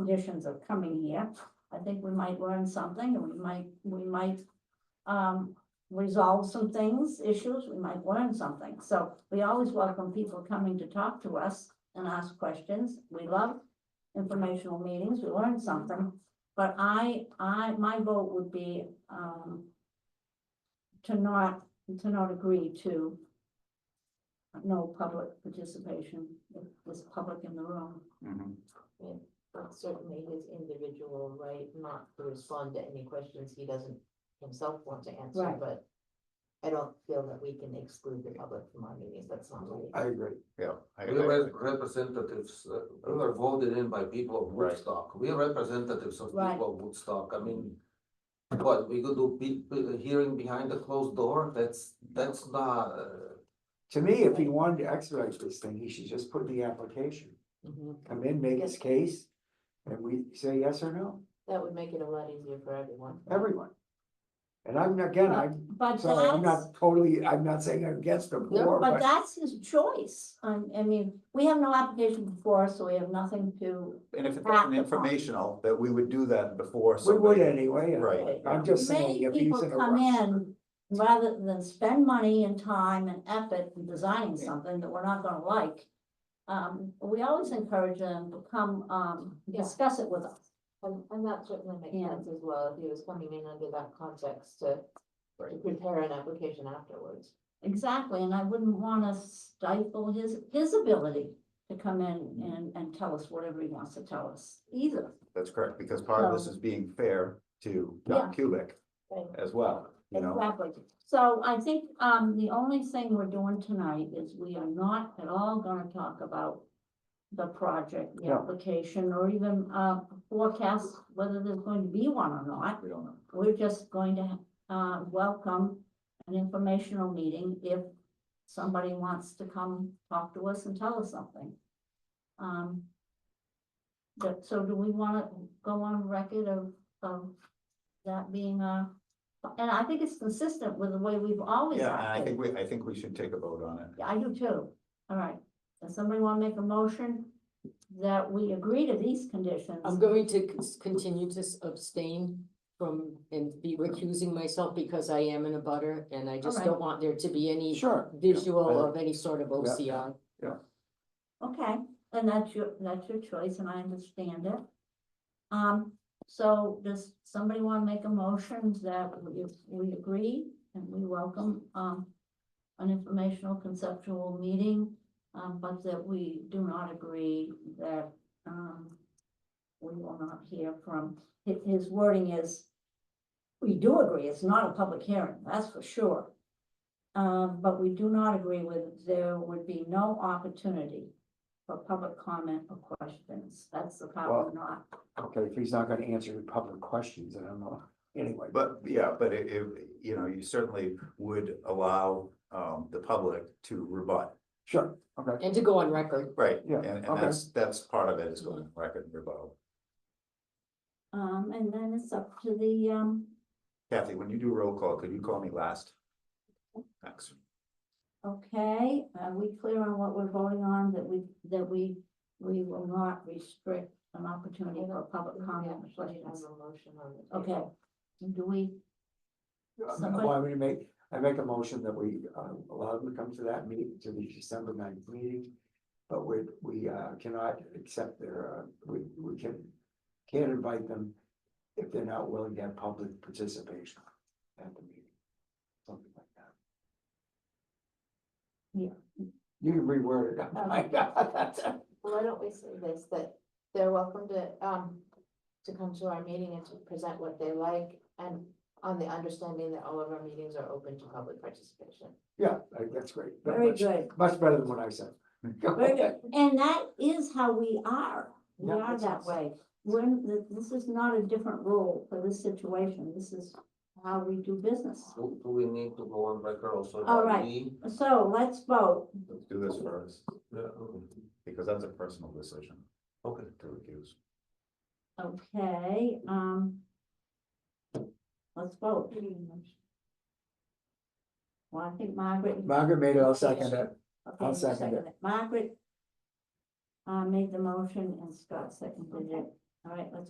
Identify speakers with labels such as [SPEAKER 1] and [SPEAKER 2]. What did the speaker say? [SPEAKER 1] conditions of coming here. I think we might learn something and we might, we might um, resolve some things, issues, we might learn something. So we always welcome people coming to talk to us and ask questions. We love informational meetings, we learn something. But I, I, my vote would be, um, to not, to not agree to no public participation, if there's public in the room.
[SPEAKER 2] Mhm.
[SPEAKER 3] But certainly his individual right not to respond to any questions he doesn't himself want to answer,
[SPEAKER 1] Right.
[SPEAKER 3] but. I don't feel that we can exclude the public from our meetings, that's not right.
[SPEAKER 4] I agree.
[SPEAKER 2] Yeah. I-
[SPEAKER 4] We are
[SPEAKER 2] I-
[SPEAKER 4] rep- representatives, uh, we are voted in by people of
[SPEAKER 2] Right.
[SPEAKER 4] Woodstock. We are representatives of
[SPEAKER 1] Right.
[SPEAKER 4] people of Woodstock. I mean. What, we could do be, be- a hearing behind a closed door? That's, that's not, uh,
[SPEAKER 5] To me, if he wanted to expedite this thing, he should just put in the application,
[SPEAKER 6] Mm-hmm.
[SPEAKER 3] Mhm.
[SPEAKER 5] come in, make his
[SPEAKER 3] Yes.
[SPEAKER 5] case, and we say yes or no,
[SPEAKER 3] That would make it a lot easier for everyone.
[SPEAKER 5] everyone. And I'm, again, I'm,
[SPEAKER 1] But
[SPEAKER 5] sorry, I'm
[SPEAKER 1] that's,
[SPEAKER 5] not totally, I'm not saying I'm against the board,
[SPEAKER 1] but
[SPEAKER 5] but
[SPEAKER 1] that's his choice. I, I mean, we have no application before, us, so we have nothing to.
[SPEAKER 2] And if it's
[SPEAKER 1] At
[SPEAKER 2] an
[SPEAKER 1] the
[SPEAKER 2] informational, that we would do that before
[SPEAKER 5] we would
[SPEAKER 2] somebody.
[SPEAKER 5] anyway. and
[SPEAKER 2] Right.
[SPEAKER 5] I'm just saying,
[SPEAKER 1] Many
[SPEAKER 5] if he's
[SPEAKER 1] people
[SPEAKER 5] in a
[SPEAKER 1] come
[SPEAKER 5] rush.
[SPEAKER 1] in rather than spend money and time and effort in designing something that we're not gonna like. Um, we always encourage them to come, um,
[SPEAKER 3] Yeah.
[SPEAKER 1] discuss it with us.
[SPEAKER 3] And, and that certainly makes
[SPEAKER 1] Yeah.
[SPEAKER 3] sense as well, if he was coming in under that context to. To
[SPEAKER 2] Right.
[SPEAKER 3] prepare an application afterwards.
[SPEAKER 1] Exactly, and I wouldn't wanna stifle his, his ability to come in and, and tell us whatever he wants to tell us either.
[SPEAKER 2] That's correct, because part of this
[SPEAKER 1] So-
[SPEAKER 2] is being fair to Doc Cubic
[SPEAKER 3] Right.
[SPEAKER 2] as well, you know?
[SPEAKER 1] Exactly. So I think, um, the only thing we're doing tonight is we are not at all gonna talk about the project, the
[SPEAKER 5] No.
[SPEAKER 1] application, or even, uh, forecast whether there's going to be one or not.
[SPEAKER 2] We don't know.
[SPEAKER 1] We're just going to, uh, welcome an informational meeting if somebody wants to come talk to us and tell us something. Um, but, so do we wanna go on record of, of that being a, and I think it's consistent with the way we've always
[SPEAKER 2] Yeah, and I
[SPEAKER 1] acted.
[SPEAKER 2] think we, I think we should take a vote on it.
[SPEAKER 1] Yeah, I do too. All right. Does somebody wanna make a motion that we agree to these conditions?
[SPEAKER 6] I'm going to cons- continue to s- abstain from and be recusing myself because I am in a butter and I just don't
[SPEAKER 1] Alright.
[SPEAKER 6] want there to be any
[SPEAKER 5] Sure,
[SPEAKER 6] visual of any sort of OCR.
[SPEAKER 1] Okay, and that's your, that's your choice, and I understand it. Um, so does somebody wanna make a motion that we, we agree and we welcome, um. An informational conceptual meeting, um, but that we do not agree that, um. We will not hear from, hi- his wording is. We do agree, it's not a public hearing, that's for sure. Um, but we do not agree with, there would be no opportunity for public comment or questions. That's the
[SPEAKER 5] Well-
[SPEAKER 1] problem, not.
[SPEAKER 5] okay, if he's not gonna answer your public questions, I don't know, anyway.
[SPEAKER 2] But, yeah, but it, it, you know, you certainly would allow, um, the public to rebut.
[SPEAKER 5] Sure, okay,
[SPEAKER 6] And to go on record,
[SPEAKER 2] Right.
[SPEAKER 5] Yeah,
[SPEAKER 2] And, and
[SPEAKER 5] okay.
[SPEAKER 2] that's, that's part of it is going record and rebuttal.
[SPEAKER 1] Um, and then it's up to the, um,
[SPEAKER 2] Kathy, when you do roll call, could you call me last? Thanks.
[SPEAKER 1] okay, are we clear on what we're voting on, that we, that we, we will not restrict an opportunity for
[SPEAKER 3] We
[SPEAKER 1] public comment or
[SPEAKER 3] actually have
[SPEAKER 1] questions?
[SPEAKER 3] a motion on the table.
[SPEAKER 1] Okay, do we, Somebody-
[SPEAKER 5] Why would you make, I make a motion that we uh, allow them to come to that meeting, to the December ninth meeting. But we, we uh, cannot accept their, uh, we, we can, can't invite them if they're not willing to have public participation at the meeting. Something like that.
[SPEAKER 1] Yeah.
[SPEAKER 5] You can reword it. Oh my God.
[SPEAKER 3] Why don't we say this, that they're welcome to, um, to come to our meeting and to present what they like and on the understanding that all of our meetings are open to public participation.
[SPEAKER 5] Yeah, I- that's great. That
[SPEAKER 1] very
[SPEAKER 5] much-
[SPEAKER 1] good,
[SPEAKER 5] Much better than what I said.
[SPEAKER 1] very good, and that is how we are, we
[SPEAKER 5] Yeah,
[SPEAKER 1] are
[SPEAKER 5] that's
[SPEAKER 1] that
[SPEAKER 5] awesome.
[SPEAKER 1] way. When, th- this is not a different rule for this situation, this is how we do business.
[SPEAKER 4] Do, do we need to go on record also?
[SPEAKER 1] All
[SPEAKER 4] about
[SPEAKER 1] right.
[SPEAKER 4] me?
[SPEAKER 1] So let's vote,
[SPEAKER 2] Let's do this first,
[SPEAKER 4] Yeah, okay.
[SPEAKER 2] because that's a personal decision
[SPEAKER 4] Okay.
[SPEAKER 2] to recuse.
[SPEAKER 1] okay, um. Let's vote. Well, I think Margaret.
[SPEAKER 5] Margaret made it, I'll second it.
[SPEAKER 1] Okay,
[SPEAKER 5] I'll
[SPEAKER 1] you
[SPEAKER 5] second it.
[SPEAKER 1] Margaret uh, made the motion and Scott seconded it. All right, let's